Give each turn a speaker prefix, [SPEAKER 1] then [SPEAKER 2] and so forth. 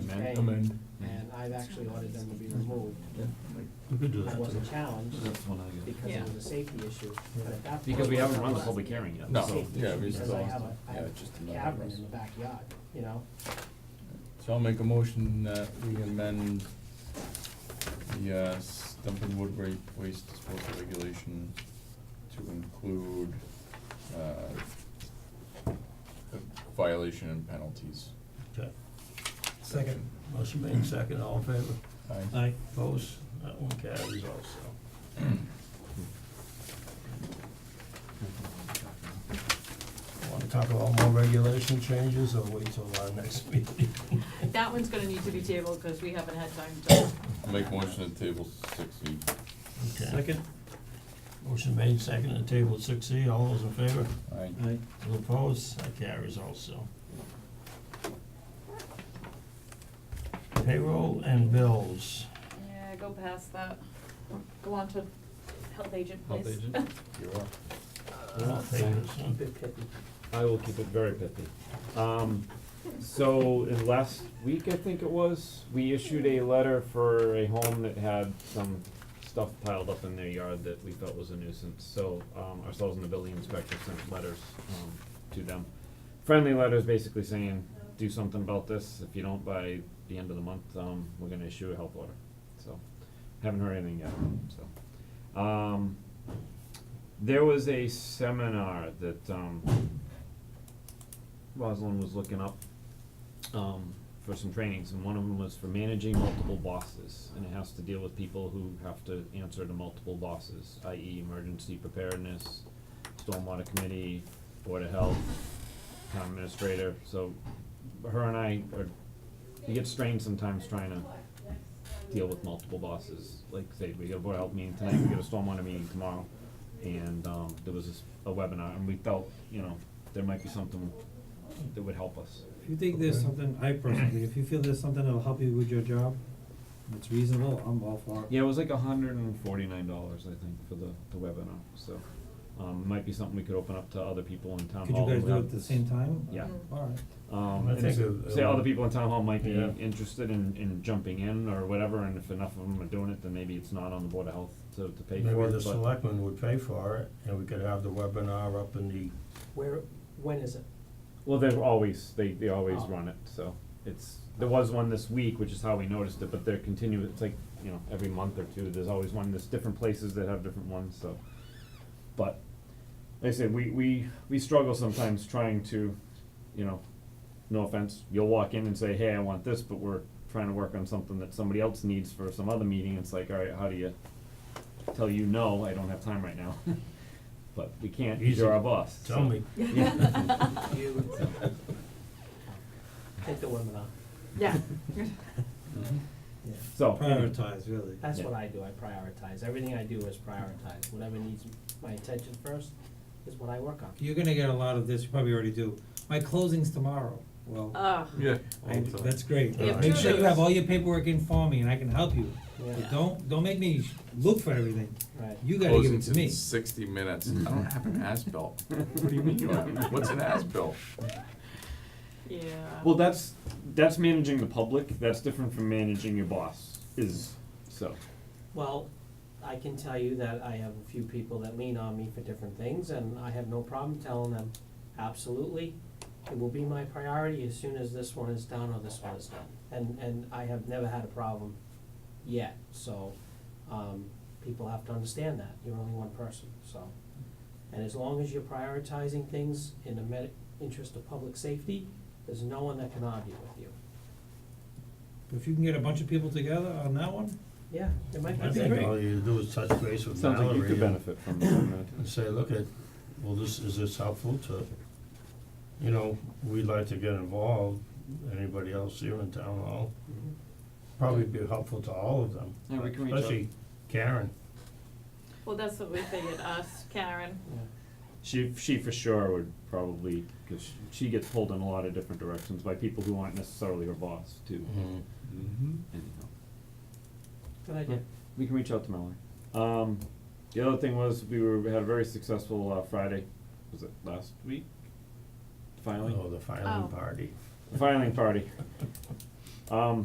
[SPEAKER 1] pay,
[SPEAKER 2] amend.
[SPEAKER 1] and I've actually ordered them to be removed.
[SPEAKER 2] We could do
[SPEAKER 1] I
[SPEAKER 2] that.
[SPEAKER 1] wasn't challenged
[SPEAKER 3] That's the one I get.
[SPEAKER 1] because
[SPEAKER 4] Yeah.
[SPEAKER 1] it was a safety issue, but at that point.
[SPEAKER 3] Because we haven't run the
[SPEAKER 1] I was-
[SPEAKER 3] public hearing yet.
[SPEAKER 2] No.
[SPEAKER 3] so-
[SPEAKER 2] Yeah, we
[SPEAKER 1] Because
[SPEAKER 2] still-
[SPEAKER 1] I have a, I have
[SPEAKER 3] Yeah, just
[SPEAKER 1] a
[SPEAKER 3] another
[SPEAKER 1] cavern in
[SPEAKER 3] reason.
[SPEAKER 1] the backyard, you know?
[SPEAKER 2] So I'll make a motion that we amend the, uh, dumping wood wa- waste disposal regulation to include, uh, a violation and penalties.
[SPEAKER 5] Okay. Second. Motion made second, all in favor?
[SPEAKER 2] Aye.
[SPEAKER 5] Opposed? That one carries also. Want to talk about more regulation changes or wait till our next meeting?
[SPEAKER 4] That one's gonna need to be tabled, cause we haven't had time to,
[SPEAKER 2] I'll make a motion to table six E.
[SPEAKER 5] Second. Motion made second and table six E, all those in favor?
[SPEAKER 2] Aye.
[SPEAKER 5] All opposed? That carries also. Payroll and bills.
[SPEAKER 4] yeah, go past that, go on to health agent, please.
[SPEAKER 6] Health agent?
[SPEAKER 2] You're up.
[SPEAKER 5] We're not taking this one.
[SPEAKER 6] I will keep it very pithy. Um, so in last week, I think it was, we issued a letter for a home that had some stuff piled up in their yard that we felt was a nuisance. So, um, ourselves and the building inspector sent letters, um, to them. Friendly letters basically saying, do something about this. If you don't by the end of the month, um, we're gonna issue a help order. So, haven't heard anything yet, so. Um, there was a seminar that, um, Rosalind was looking up um, for some trainings, and one of them was for managing multiple bosses, and it has to deal with people who have to answer to multiple bosses, i.e., emergency preparedness, stormwater committee, board of health, town administrator. So, her and I are we get strained sometimes trying to deal with multiple bosses. Like say we get a board of health meeting tonight, we get a stormwater meeting tomorrow, and um, there was this, a webinar, and we felt you know there might be something that would help us.
[SPEAKER 7] If you think there's something, I personally, if you feel there's something that'll help you with your job, and it's reasonable, I'm all for it.
[SPEAKER 6] Yeah, it was like hundred and forty-nine dollars, I think, for the, the webinar, so, um, it might be something we could open up to other people in town
[SPEAKER 7] Could
[SPEAKER 6] hall.
[SPEAKER 7] you guys
[SPEAKER 6] who
[SPEAKER 7] do it
[SPEAKER 6] have-
[SPEAKER 7] at the same time?
[SPEAKER 6] Yeah.
[SPEAKER 7] Alright.
[SPEAKER 6] Um,
[SPEAKER 5] I
[SPEAKER 6] and
[SPEAKER 5] think
[SPEAKER 6] so-
[SPEAKER 5] it-
[SPEAKER 6] say other people in town hall might be
[SPEAKER 5] Yeah.
[SPEAKER 6] interested in, in jumping in or whatever, and if enough of them are doing it, then maybe it's not on the Board of Health to, to pay for
[SPEAKER 5] Maybe the
[SPEAKER 6] it, but,
[SPEAKER 5] selectmen would pay for it, and we could have the webinar up in the
[SPEAKER 1] Where, when is it?
[SPEAKER 6] well, they're always, they, they always
[SPEAKER 1] Oh.
[SPEAKER 6] run it, so. It's, there was one this week, which is how we noticed it, but they're continuing, it's like, you know, every month or two, there's always one, there's different places that have different ones, so. But, like I said, we, we, we struggle sometimes trying to, you know, no offense, you'll walk in and say, hey, I want this, but we're trying to work on something that somebody else needs for some other meeting, it's like, alright, how do you tell you, no, I don't have time right now? But we can't, 'cause you're our boss. so-
[SPEAKER 5] Tell me.
[SPEAKER 4] Mm-hmm.
[SPEAKER 6] Yeah.
[SPEAKER 1] You, take the webinar.
[SPEAKER 4] Yeah,
[SPEAKER 7] Yeah.
[SPEAKER 6] So, anyway.
[SPEAKER 7] Prioritize, really.
[SPEAKER 4] Uh.
[SPEAKER 1] That's
[SPEAKER 6] Yeah.
[SPEAKER 1] what I do, I prioritize. Everything I do is prioritize. Whatever needs my attention first is what I work on.
[SPEAKER 7] You're gonna get a lot of this, you probably already do. My closing's tomorrow, well,
[SPEAKER 4] uh,
[SPEAKER 2] Yeah.
[SPEAKER 7] I, that's great.
[SPEAKER 4] We have
[SPEAKER 7] Make sure you
[SPEAKER 4] two.
[SPEAKER 7] have all your paperwork in for me and I can help you. But
[SPEAKER 1] Yeah,
[SPEAKER 7] don't, don't make me look for everything.
[SPEAKER 1] right.
[SPEAKER 7] You gotta give it to me.
[SPEAKER 2] sixty minutes. I don't have an as-built. What do you mean you don't? What's an as-built?
[SPEAKER 4] yeah.
[SPEAKER 6] Well, that's that's managing the public. That's different from managing your boss. Is so.
[SPEAKER 1] Well, I can tell you that I have a few people that lean on me for different things, and I have no problem telling them, absolutely, it will be my priority as soon as this one is done or this one is done. And, and I have never had a problem yet, so, um, people have to understand that, you're only one person, so. And as long as you're prioritizing things in the med- interest of public safety, there's no one that can argue with you.
[SPEAKER 7] If you can get a bunch of people together on that one,
[SPEAKER 1] Yeah, it might
[SPEAKER 5] I
[SPEAKER 1] that'd be
[SPEAKER 5] think
[SPEAKER 1] great.
[SPEAKER 5] all you do is touch base with
[SPEAKER 6] Sounds like you
[SPEAKER 5] Mallory
[SPEAKER 6] could
[SPEAKER 5] and
[SPEAKER 6] benefit from that.
[SPEAKER 5] and say, look at, well, this, is this helpful to, you know, we'd like to get involved, anybody else here in town hall?
[SPEAKER 1] Mhm.
[SPEAKER 5] Probably be helpful to all of them,
[SPEAKER 6] Yeah, we can reach out.
[SPEAKER 5] especially Karen.
[SPEAKER 4] Well, that's what we figured, us, Karen,
[SPEAKER 1] Yeah.
[SPEAKER 6] She she for sure would probably because she, she gets pulled in a lot of different directions by people who aren't necessarily her boss too. Mm-hmm. Anyhow.
[SPEAKER 1] Good idea.
[SPEAKER 6] We can reach out to Mallory. Um, the other thing was we were we had a very successful uh, Friday. Was it last week? Filing
[SPEAKER 5] Oh, the filing
[SPEAKER 4] Oh.
[SPEAKER 5] party.
[SPEAKER 6] filing party. Um,